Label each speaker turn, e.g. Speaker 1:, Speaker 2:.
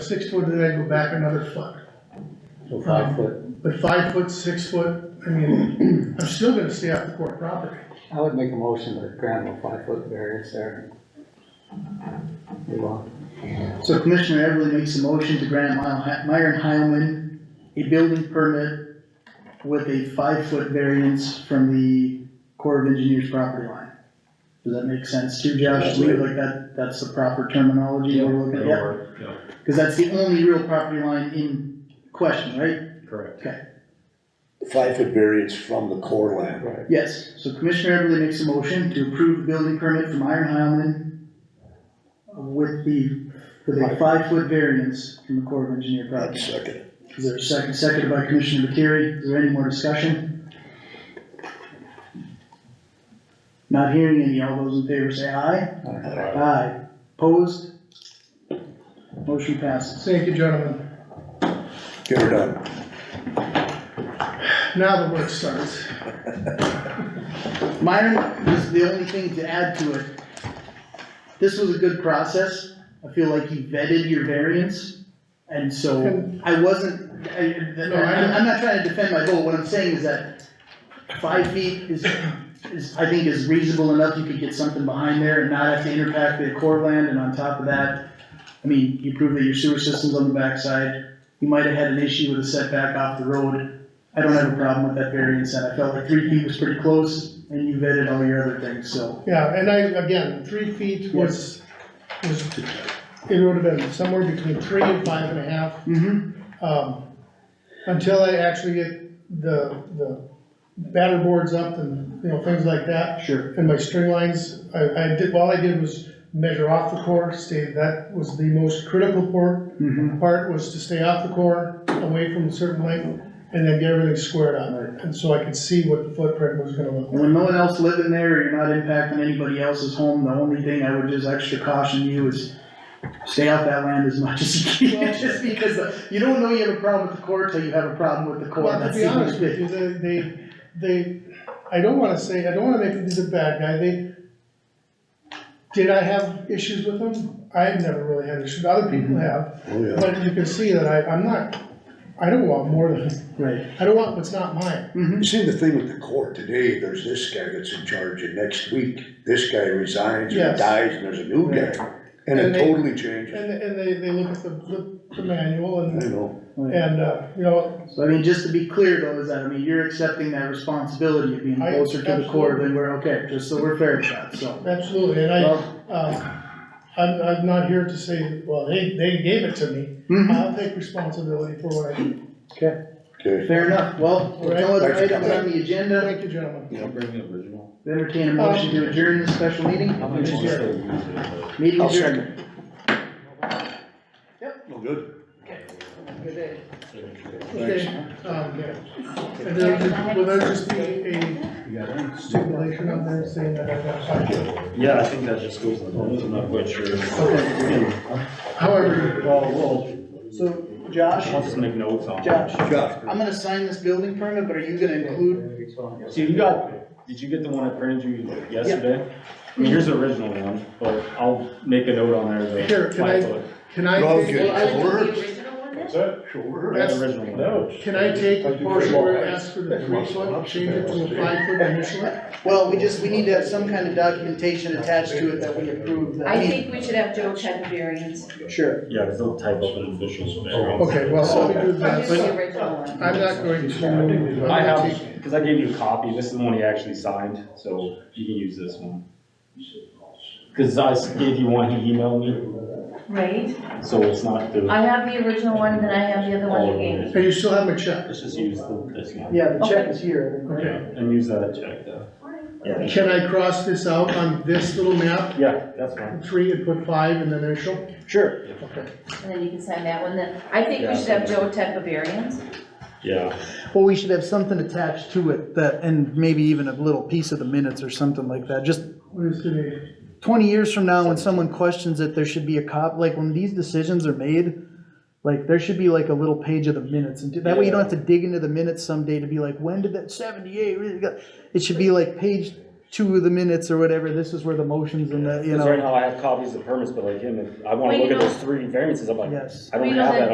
Speaker 1: six foot, and then I go back another foot.
Speaker 2: so five foot.
Speaker 1: But five foot, six foot, I mean, I'm still gonna stay off the court property.
Speaker 2: I would make a motion to grant a five foot variance there. Move on.
Speaker 3: So Commissioner Everly makes a motion to grant Myle- Myron Heilman a building permit with a five-foot variance from the Corps of Engineers property line. Does that make sense to you, Josh? Do you like that, that's the proper terminology we're looking at?
Speaker 4: It'll work, yeah,
Speaker 3: Cause that's the only real property line in question, right?
Speaker 4: correct.
Speaker 5: Five foot variance from the core land.
Speaker 2: Right.
Speaker 3: Yes, so Commissioner Everly makes a motion to approve the building permit from Myron Heilman with the, with a five-foot variance from the Corps of Engineer
Speaker 5: I'd
Speaker 3: property.
Speaker 5: second it.
Speaker 3: Is there a second, seconded by Commissioner Materi, is there any more discussion? Not hearing any, all those in favor say aye. Aye. Opposed? Motion passes.
Speaker 1: Thank you, gentlemen.
Speaker 5: Get her done.
Speaker 1: Now the work starts.
Speaker 3: Myron, this is the only thing to add to it. This was a good process, I feel like you vetted your variance, and so, I wasn't, I, I'm, I'm not trying to defend my goal, what I'm saying is that five feet is, is, I think is reasonable enough, you could get something behind there and not have to impact the core land, and on top of that, I mean, you prove that your sewer system's on the backside, you might have had an issue with a setback off the road, I don't have a problem with that variance, and I felt like three feet was pretty close, and you vetted all your other things, so,
Speaker 1: Yeah, and I, again, three feet was, was, it would have been somewhere between three and five and a half.
Speaker 3: hmm
Speaker 1: um, until I actually get the, the batter boards up and, you know, things like that,
Speaker 3: sure,
Speaker 1: and my string lines, I, I did, all I did was measure off the core, stay, that was the most critical part,
Speaker 3: hmm
Speaker 1: part was to stay off the core, away from a certain length, and then get everything squared on it, and so I could see what the footprint was gonna look
Speaker 3: And
Speaker 1: like.
Speaker 3: when no one else living there, or you're not impacting anybody else's home, the only thing I would just extra caution you is stay off that land as much as you
Speaker 1: Well-
Speaker 3: can, just because the- you don't know you have a problem with the court till you have a problem with the court,
Speaker 1: Well, to
Speaker 3: that's
Speaker 1: be
Speaker 3: the only
Speaker 1: honest with
Speaker 3: thing.
Speaker 1: you, they, they, they, I don't wanna say, I don't wanna make them the bad guy, they, did I have issues with them? I've never really had issues, other people have,
Speaker 5: Oh, yeah.
Speaker 1: but you can see that I, I'm not, I don't want more than,
Speaker 3: Right.
Speaker 1: I don't want what's not mine.
Speaker 3: Mm-hmm,
Speaker 5: You see the thing with the court today, there's this guy that's in charge and next week, this guy resigns or
Speaker 1: Yes.
Speaker 5: dies and there's a new guy.
Speaker 1: And
Speaker 5: And it
Speaker 1: they-
Speaker 5: totally changes.
Speaker 1: And, and they, they look at the, the- the manual
Speaker 5: I
Speaker 1: and,
Speaker 5: know.
Speaker 1: and, uh, you know,
Speaker 3: so I mean, just to be clear though, is that, I mean, you're accepting that responsibility of being
Speaker 1: I-
Speaker 3: closer to the court than we're, okay, just so we're fair about, so.
Speaker 1: absolutely, and I,
Speaker 3: Well,
Speaker 1: um, I'm, I'm not here to say, well, they, they gave it to me,
Speaker 3: mhm,
Speaker 1: I'll take responsibility for what I did.
Speaker 5: Okay.
Speaker 3: fair enough, well, with no other
Speaker 5: Alright.
Speaker 3: items on the agenda,
Speaker 1: Thank you, gentlemen.
Speaker 3: entertain a motion to adjourn this special meeting, meeting
Speaker 5: I'll
Speaker 3: adjourned.
Speaker 5: second. Well, good.
Speaker 1: Okay, um, and then, will there just be a stipulation on there saying that I've got five?
Speaker 4: Yeah, I think that just goes with the bonus, I'm not quite sure.
Speaker 1: However,
Speaker 4: Well, we'll,
Speaker 3: So, Josh,
Speaker 4: I'll just make notes on. it.
Speaker 3: Josh.
Speaker 5: Josh.
Speaker 3: I'm gonna sign this building permit, but are you gonna include,
Speaker 4: See, you got, did you get the one I printed you yesterday? I mean, here's the original one, but I'll make a note on there,
Speaker 1: Here,
Speaker 4: the
Speaker 1: can I-
Speaker 4: five foot.
Speaker 1: can I,
Speaker 5: Well,
Speaker 1: take-
Speaker 5: okay.
Speaker 6: Well, I
Speaker 5: Yeah,
Speaker 6: like
Speaker 5: words.
Speaker 6: the original one then.
Speaker 4: I got the original one.
Speaker 1: can I take the portion where it asks for the three foot, change it to a five foot initially?
Speaker 3: well, we just, we need to have some kind of documentation attached to it that we approve that.
Speaker 6: I think we should have Joe check the variance,
Speaker 3: Sure.
Speaker 4: Yeah, because they'll type up an official.
Speaker 1: Oh, Okay, well, so we do
Speaker 6: or just the
Speaker 1: that,
Speaker 6: original one.
Speaker 1: I'm not going to uh, move.
Speaker 4: I have, because I gave you a copy, this is the one he actually signed, so you can use this one. Because I gave you one, he emailed
Speaker 6: Right,
Speaker 4: me, so it's not the,
Speaker 6: I have the original one, then I have the other one you gave me.
Speaker 1: And you still have my check?
Speaker 4: let's just use the- this one.
Speaker 3: Yeah, the check is here.
Speaker 1: Okay.
Speaker 4: And use that check though. Yeah,
Speaker 1: Can I cross this out on this little map,
Speaker 4: yeah, that's fine.
Speaker 1: three and put five and then initial?
Speaker 3: Sure.
Speaker 1: Okay.
Speaker 6: And then you can sign that one, then, I think we should have Joe check the variance.
Speaker 4: Yeah.
Speaker 3: Well, we should have something attached to it that, and maybe even a little piece of the minutes or something like that, just
Speaker 1: What is today?
Speaker 3: twenty years from now, when someone questions it, there should be a cop, like, when these decisions are made, like, there should be like a little page of the minutes, and that way you don't have to dig into the minutes someday to be like, when did that seventy-eight, really go?" it should be like page two of the minutes or whatever, this is where the motions and the, you
Speaker 4: Because right
Speaker 3: know,
Speaker 4: now I have copies of permits, but like him, if I wanna look
Speaker 6: Well, you
Speaker 4: at
Speaker 6: know-
Speaker 4: those three variances, I'm like,
Speaker 3: yes.
Speaker 4: I don't
Speaker 6: Well, you know
Speaker 4: have
Speaker 6: that
Speaker 4: that